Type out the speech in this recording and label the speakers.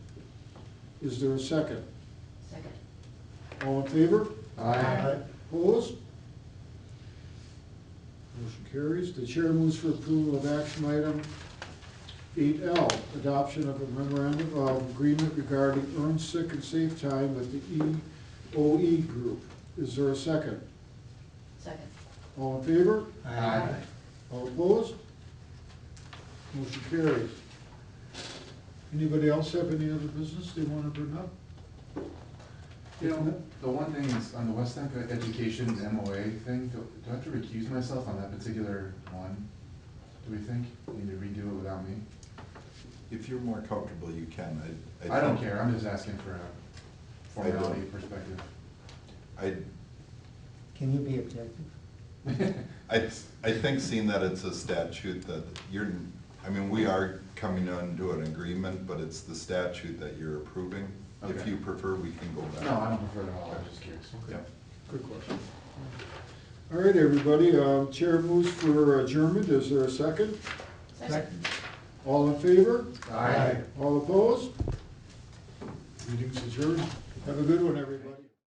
Speaker 1: Is there a second?
Speaker 2: Second.
Speaker 1: All in favor?
Speaker 2: Aye.
Speaker 1: Opposed? Motion carries. The chair moves for approval of action item eight L, adoption of a memorandum of agreement regarding earned sick and safe time with the EOE group. Is there a second?
Speaker 2: Second.
Speaker 1: All in favor?
Speaker 2: Aye.
Speaker 1: All opposed? Motion carries. Anybody else have any other business they want to bring up?
Speaker 3: You know, the one thing is on the West End Education MOA thing, do do I have to recuse myself on that particular one? Do we think? Need to redo it without me?
Speaker 4: If you're more comfortable, you can.
Speaker 3: I don't
Speaker 4: think-
Speaker 3: care, I'm just asking for a
Speaker 4: I don't.
Speaker 3: formality perspective.
Speaker 4: I,
Speaker 5: Can you be objective?
Speaker 4: I, I think seeing that it's a statute that you're, I mean, we are coming into an agreement, but it's the statute that you're approving. If
Speaker 3: Okay.
Speaker 4: you prefer, we can go back.
Speaker 3: No, I don't prefer it at all, I was just curious.
Speaker 4: Yeah.
Speaker 1: Good question. All right, everybody, uh, chair moves for adjournment, is there a second?
Speaker 2: Second.
Speaker 1: All in favor?
Speaker 3: Aye.
Speaker 1: All opposed? Meeting's adjourned. Have a good one, everybody.